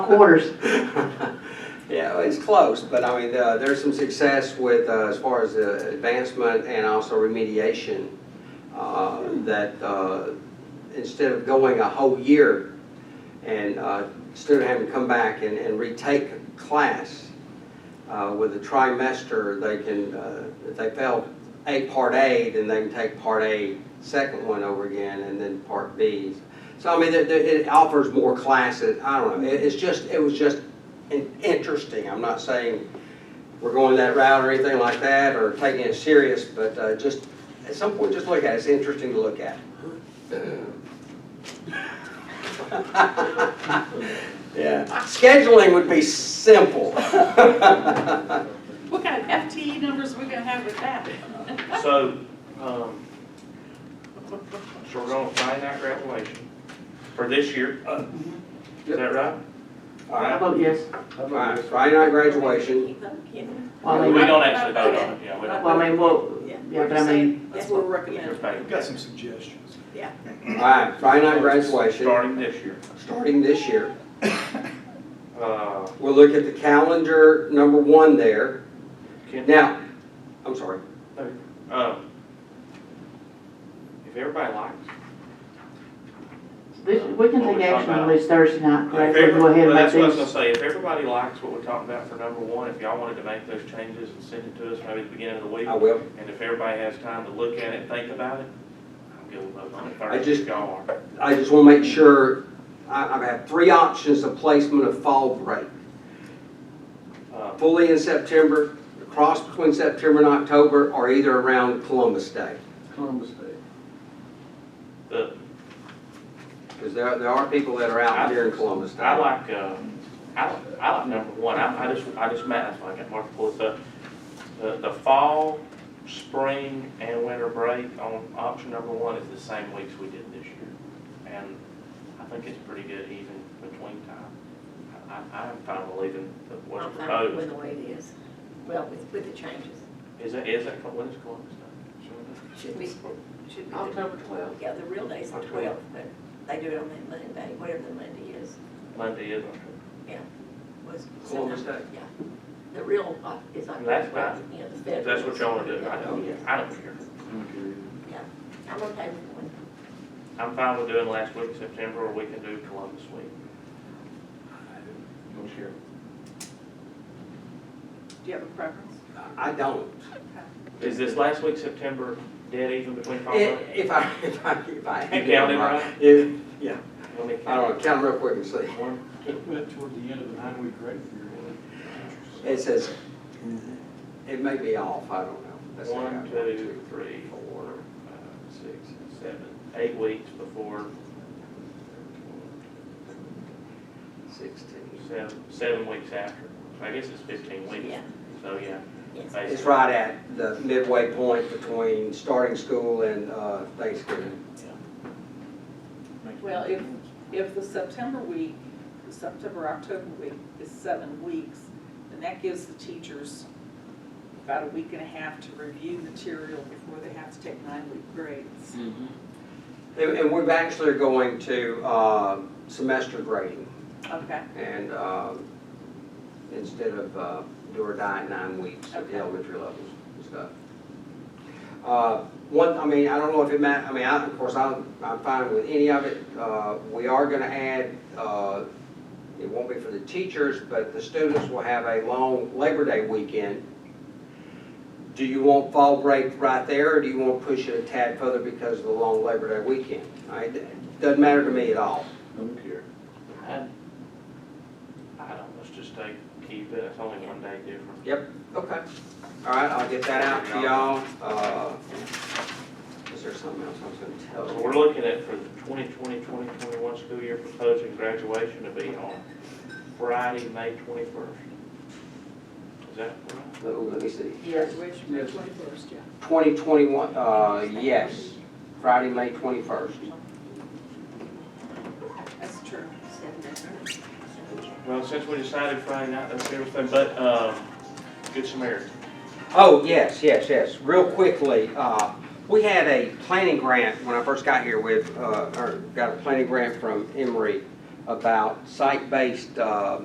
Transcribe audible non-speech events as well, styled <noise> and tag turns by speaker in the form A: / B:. A: quarters.
B: <laughs> Yeah, well, it's close, but I mean, uh, there's some success with, uh, as far as uh, advancement and also remediation, uh, that uh, instead of going a whole year and uh, student having to come back and and retake class uh, with a trimester, they can, uh, if they failed A Part A, then they can take Part A, second one over again, and then Part B. So I mean, there- there- it offers more classes, I don't know, It- it's just, it was just in- interesting. I'm not saying we're going that route or anything like that, or taking it serious, but uh, just, at some point, just look at it, it's interesting to look at. <laughs> Yeah, scheduling would be simple. <laughs>
C: What kind of FTE numbers are we gonna have with that?
D: So, um, so we're gonna finite graduation for this year, uh, is that right?
B: All
A: I
B: right,
A: vote yes.
B: all right, Friday night graduation,
A: Well, I
B: Mm-hmm.
D: We
A: mean,
D: don't actually vote on it, yeah, we
A: well, I
D: don't.
A: mean, well, yeah, but I mean,
C: That's what we're
D: Just
C: recommending.
D: pay
E: We've got some suggestions.
B: all right, Friday night graduation,
D: Starting this year.
B: starting this year.
D: Uh,
B: We'll look at the calendar, number one there.
D: can,
B: Now, I'm sorry,
D: um, if everybody likes,
A: this, we can
D: What
A: take
D: we
A: action
D: talking
A: on
D: about?
A: this Thursday night,
D: if
A: correct? We'll
D: every-
A: go ahead
D: well,
A: and make
D: that's what I was gonna
A: these.
D: say, if everybody likes what we're talking about for number one, if y'all wanted to make those changes and send it to us maybe at the beginning of the week,
B: I will.
D: and if everybody has time to look at it, think about it, I'll give a vote on it
B: I
D: Thursday
B: just-
D: if y'all are.
B: I just want to make sure, I- I've had three options of placement of fall break.
D: Uh,
B: Fully in September, cross between September and October, or either around Columbus Day.
E: Columbus Day.
D: The,
B: Because there, there are people that are out here in Columbus Day.
D: I like, uh, I like, I like number one, I, I just, I just met, that's why I got Mark to pull this up. The, the fall, spring, and winter break on option number one is the same weeks we did this year. And I think it's pretty good even between time. I, I- I'm fine with leaving the- what's
F: I'm fine with
D: proposed.
F: the way it is, well, with, with the changes.
D: Is that, is that, when is Columbus Day?
F: Should be, should be, the-
D: October twelfth.
F: yeah, the real day's the twelfth, but they do it on that Monday, whatever the Monday is,
D: Monday is October.
F: was.
B: Columbus Day.
F: Yeah, the real uh, is October.
D: That's
F: You know, the
D: If
F: federal.
D: that's what y'all wanna do, I
F: Yeah.
D: don't, I don't care.
F: I'm okay with one.
D: I'm fine with doing last week, of September, or we can do Columbus week.
C: Do you have a preference?
B: I don't.
D: Uh-huh. Is this last week, September, dead even between
B: I-
D: five and?
B: If I, <laughs> if I, if I. had
D: You counted,
B: it
D: right?
B: If, yeah,
D: Let me
B: I don't know,
D: count.
B: count real quick and see.
D: One,
E: But toward the end of the nine-week break period.
B: It says, uh, it may be off, I don't know. Let's see.
D: one, two, three, four, five, six, seven, eight weeks before,
B: Sixteen.
D: seven, seven weeks after. I guess it's fifteen weeks,
F: Yeah,
D: so yeah.
F: yes.
B: It's
D: basically.
B: right at the midway point between starting school and uh, Thanksgiving.
C: Well, if, if the September week, the September, October week is seven weeks, then that gives the teachers about a week and a half to review material before they have to take nine-week grades.
B: And and we've actually going to uh, semester grading.
C: Okay,
B: And um, instead of uh, do or die at nine weeks at the
C: Okay.
B: elementary levels and stuff. Uh, One, I mean, I don't know if it ma, I mean, I, of course, I'm, I'm fine with any of it. Uh, We are gonna add, uh, it won't be for the teachers, but the students will have a long Labor Day weekend. Do you want fall break right there, or do you want to push it a tad further because of the long Labor Day weekend? I- It doesn't matter to me at all.
E: Don't care.
D: I I don't, let's just take, keep it, it's only one day different.
B: Okay, all right, I'll get that out to y'all. Uh, Is there something else I was gonna tell
D: So
B: you?
D: we're looking at for the 2020, 2021 school year proposing graduation to be on Friday, May 21st. Is that right?
B: Let- Let me see,
A: Yes.
C: graduation May twenty-first, yeah.
B: 2021, uh, yes, Friday, May 21st.
C: That's true.
D: Well, since we decided Friday night, that's everything, but, um, Good Samaritan.
B: Oh, yes, yes, yes, real quickly, uh, we had a planning grant when I first got here with, uh, or got a planning grant from Emory uh, about site-based uh,